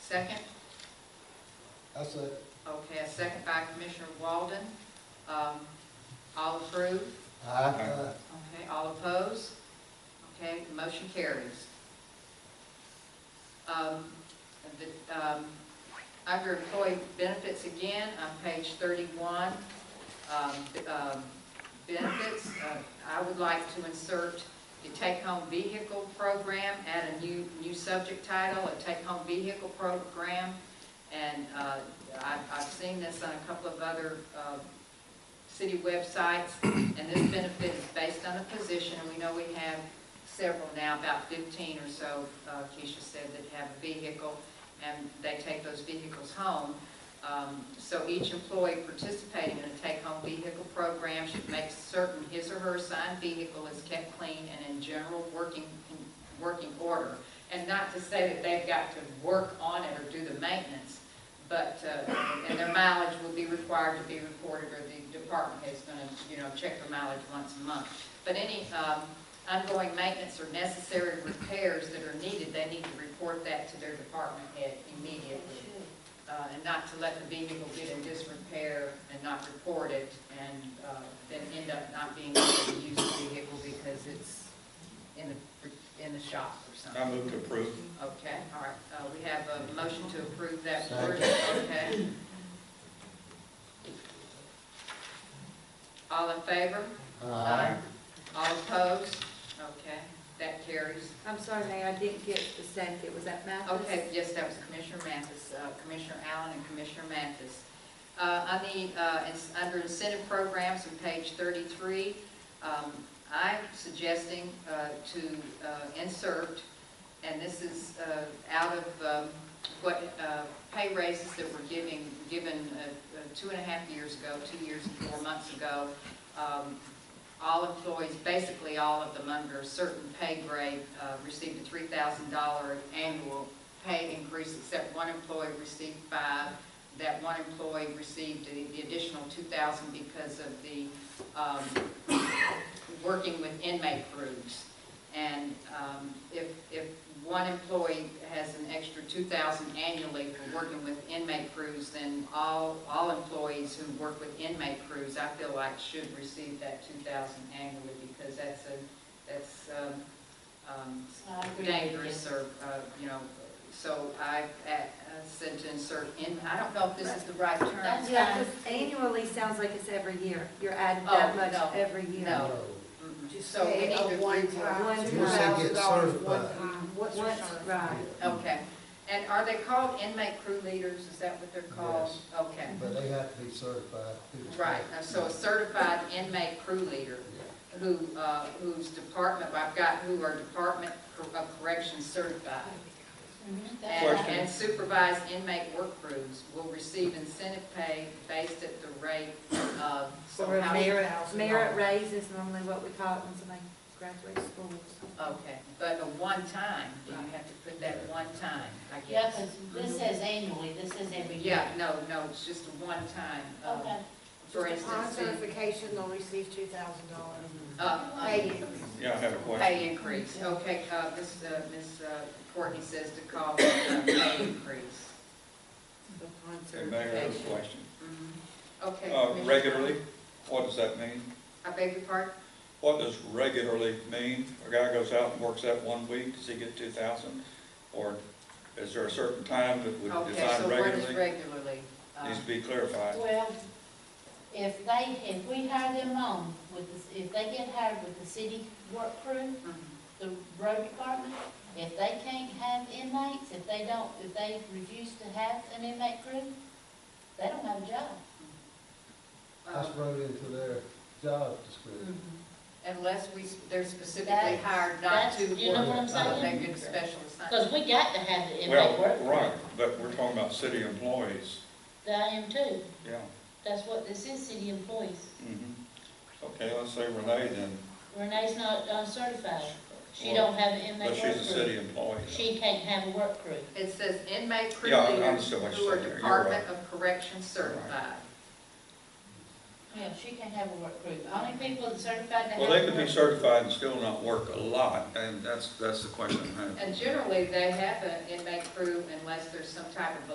Second? I said, Okay, a second by Commissioner Walden. Um, All approved? aye. Okay, all opposed? Okay, the motion carries. Um, the- um, Under employee benefits again, on page 31, um, um, benefits, uh, I would like to insert the take-home vehicle program, add a new, new subject title, a take-home vehicle program. And uh, I- I've seen this on a couple of other uh, city websites. And this benefit is based on a position, and we know we have several now, about 15 or so, uh, Keisha said, that have a vehicle, and they take those vehicles home. Um, So each employee participating in a take-home vehicle program should make certain his or her assigned vehicle is kept clean and in general working, working order. And not to say that they've got to work on it or do the maintenance, but, uh, and their mileage will be required to be reported, or the department head's gonna, you know, check the mileage once a month. But any um, ongoing maintenance or necessary repairs that are needed, they need to report that to their department head immediately. Uh, And not to let the vehicle get in disrepair and not report it, and uh, then end up not being able to use the vehicle because it's in the, in the shop or something. I move to approve. Okay, all right, uh, we have a motion to approve that Second. version, okay? All in favor? Aye. All opposed? Okay, that carries. I'm sorry, Mayor, I didn't get the second, it was at Mathis? Okay, yes, that was Commissioner Mathis, uh, Commissioner Allen and Commissioner Mathis. Uh, On the, uh, ins- under incentive programs on page 33, um, I'm suggesting uh, to uh, insert, and this is uh, out of um, what uh, pay raises that were giving, given uh, uh, two and a half years ago, two years and four months ago, um, all employees, basically all of them under a certain pay grade, uh, received a three thousand dollar annual pay increase, except one employee received five. That one employee received the the additional two thousand because of the, um, working with inmate groups. And um, if, if one employee has an extra two thousand annually for working with inmate crews, then all, all employees who work with inmate crews, I feel like should receive that two thousand annually because that's a, that's um, um, Uh, dangerous or, uh, you know, so I uh, said to insert in, I don't know if this is the right term. That's Yeah, fine. 'cause annually sounds like it's every year, you're adding Oh, that much no. every year. No. Just So we pay need a to- one-time One $2,000 time. Get served one by. time. What's Once, your right. Okay, and are they called inmate crew leaders, is that what they're called? Okay, But they have to be certified. too. right, Now, so a certified inmate crew leader Yeah. who, uh, whose department, I've got who are Department of Corrections certified. And Question. and supervised inmate work crews will receive incentive pay based at the rate of. Or a somehow- merit house. Merit raise is normally what we call it when somebody graduates school. Okay, but a one time, you have to put that one time, I Yeah, guess. Mm-hmm. 'cause this says annually, this is every year. Yeah, no, no, it's just a one time. uh, Um, Okay. For instance, the- certification, they'll receive two thousand dollars. Uh, Yeah, I have a uh, question. Pay increase, okay, uh, Ms. uh, Ms. uh, Courtney says to call for a pay increase. Hey, Mayor, I have a question. Mhm. Okay. Uh, Commissioner- regularly, what does that mean? I beg your pardon? What does regularly mean? A guy goes out and works that one week, does he get two thousand? Or is there a certain time that would Okay, so define what is regularly? regularly? Uh, Needs to be clarified. Well, if they, if we hire them on with the, if they get hired with the city work crew, mhm. the road department, if they can't have inmates, if they don't, if they refuse to have an inmate crew, they don't have a job. Uh, That's wrote into their job Mm-hmm. description. Unless we, they're specifically That's- hired not to that's- You know work, uh, what I'm what they saying? get special Cause assignment. we got to have the inmate Well, work. right, but we're talking about city employees, The IM too. yeah. That's what this is, city employees. mhm. Okay, let's say Renee then, Renee's not uncertified. She Well, don't have an but inmate she's a work crew. city employee. She can't have a work crew. It says inmate crew Yeah, I- I leaders understand what who you're are saying there. You're Department of Corrections certified. Yeah, she can have a work crew. Only people that certified to have. Well, they could a be work- certified and still not work a lot, and that's, that's the question I have. And generally, they have an inmate crew unless there's some type of